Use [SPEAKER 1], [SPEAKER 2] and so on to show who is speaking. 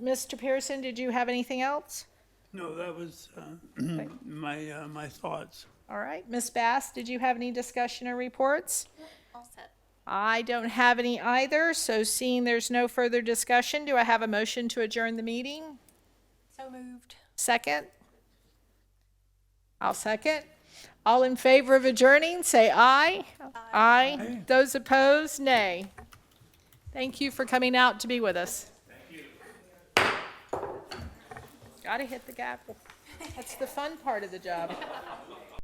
[SPEAKER 1] Mr. Pearson, did you have anything else?
[SPEAKER 2] No, that was uh, my, uh, my thoughts.
[SPEAKER 1] All right, Ms. Bass, did you have any discussion or reports?
[SPEAKER 3] All set.
[SPEAKER 1] I don't have any either, so seeing there's no further discussion, do I have a motion to adjourn the meeting?
[SPEAKER 3] So moved.
[SPEAKER 1] Second? I'll second. All in favor of adjourning, say aye. Aye. Those opposed, nay. Thank you for coming out to be with us. Thank you. Gotta hit the gavel. That's the fun part of the job.